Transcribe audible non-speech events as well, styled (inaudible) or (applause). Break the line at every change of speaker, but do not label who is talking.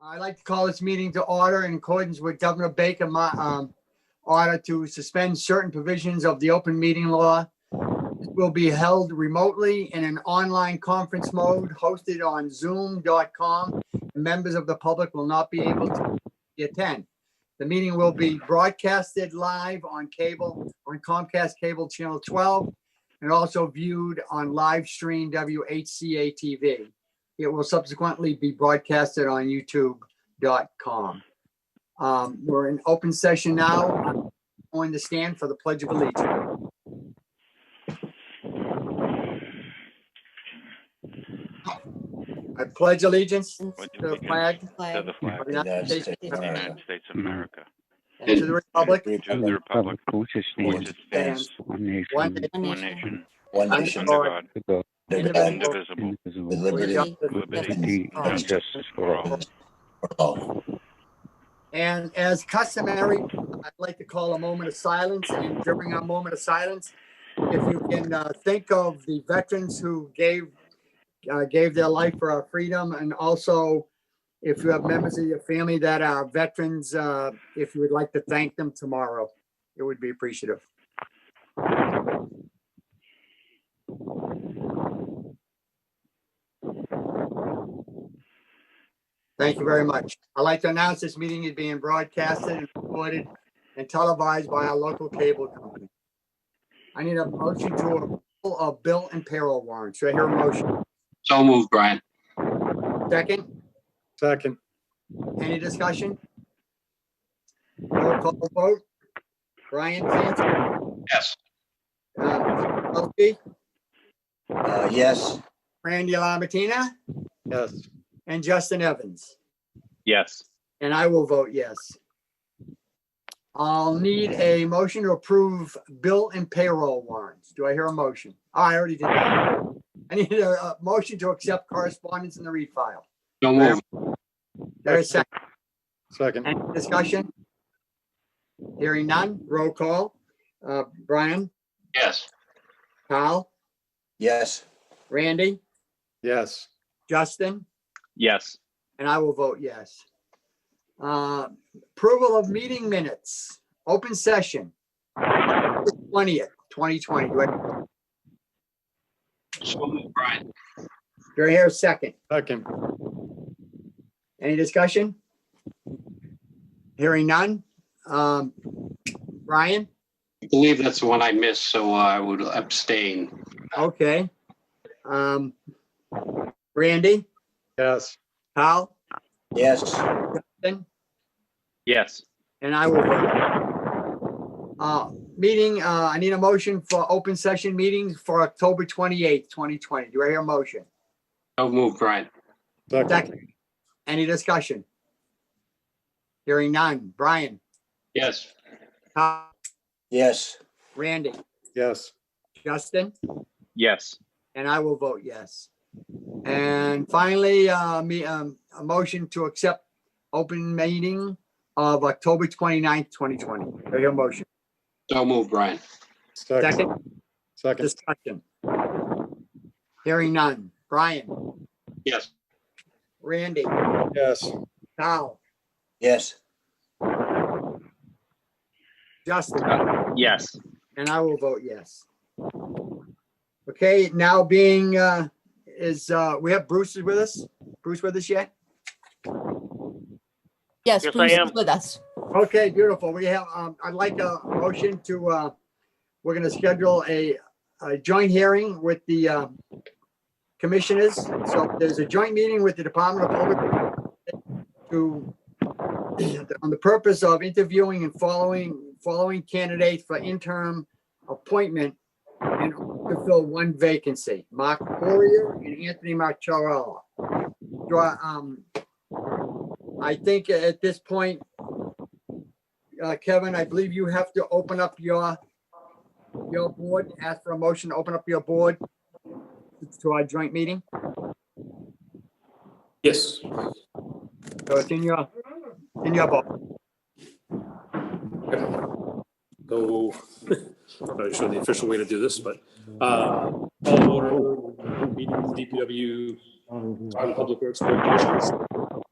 I'd like to call this meeting to order in accordance with Governor Baker, my, um, order to suspend certain provisions of the open meeting law. This Will be held remotely in an online conference mode hosted on zoom.com. Members of the public will not be able to attend. The meeting will be broadcasted live on cable, on Comcast Cable Channel 12, and also viewed on live stream WHCA TV. It will subsequently be broadcasted on youtube.com. Um, We're in open session now. I'm Going to stand for the Pledge of Allegiance. I pledge allegiance
Pledge
to the
allegiance
flag
To the
of
flag of
the
United
United States
States
of
of
the
America
United States of America,
and to the republic
to the republic
which is
which
stands
it stands,
one
one
nation
one nation,
one
under
nation
God,
under
and
indivisible,
with
God,
liberty
with
and
liberty
liberty and justice for all.
all.
And as customary, I'd like to call a moment of silence and during our moment of silence, if you can uh, think of the veterans who gave, uh, gave their life for our freedom and also if you have members of your family that are veterans, uh, if you would like to thank them tomorrow, it would be appreciative. Thank you very much. I'd like to announce this meeting is being broadcasted and recorded and televised by our local cable company. I need a motion to approve of bill and payroll warrants. Do I hear a motion?
So moved, Brian.
Second,
Second,
any discussion? Roll call vote. Brian Clancy,
Yes.
uh, Kelsey,
Uh, yes,
Randy Lamontina,
yes,
and Justin Evans.
Yes.
And I will vote yes. I'll need a motion to approve bill and payroll warrants. Do I hear a motion? Oh, I already did that. I need a, a motion to accept correspondence in the read file.
So moved.
There is second
second,
Any discussion. Hearing none, roll call. Uh, Brian,
Yes.
Kyle,
yes,
Randy,
yes,
Justin,
Yes.
and I will vote yes. Uh, Approval of meeting minutes, open session. Twentieth, twenty twenty. Do I
So moved, Brian.
Do I hear a second?
second,
Any discussion? Hearing none. Um, Brian?
I believe that's the one I missed, so uh, I would abstain.
Okay. Um, Randy?
yes,
Kyle?
yes,
Ben?
Yes.
And I will vote. Uh, meeting, uh, I need a motion for open session meetings for October twenty-eighth, twenty twenty. Do I hear a motion?
So moved, Brian.
second,
Second. Any discussion? Hearing none. Brian?
Yes.
Kyle?
yes,
Randy?
yes,
Justin?
Yes.
And I will vote yes. And finally, uh, me, um, a motion to accept open meeting of October 29th, 2020. Do I hear a motion?
So moved, Brian.
second,
Second
second,
discussion. Hearing none. Brian,
Yes.
Randy,
yes,
Kyle,
yes,
Justin,
Yes.
and I will vote yes. Okay, now being, uh, is, uh, we have Bruce is with us? Bruce with us yet?
Yes,
Yes,
I
Bruce
am.
is with us.
Okay, beautiful. We have, um, I'd like a motion to, uh, we're gonna schedule a, a joint hearing with the, uh, commissioners. So there's a joint meeting with the Department of Public to, (clears throat) on the purpose of interviewing and following, following candidates for interim appointment and to fill one vacancy, Mark Poirier and Anthony Marcharella. Do I, um, I think at this point, uh, Kevin, I believe you have to open up your, your board, ask for a motion, to open up your board to our joint meeting.
Yes,
So it's in your, in your book.
so, I'm (laughs) not sure the official way to do this, but, uh, all in order, meeting with DPW, our Public Works Board of Commissioners,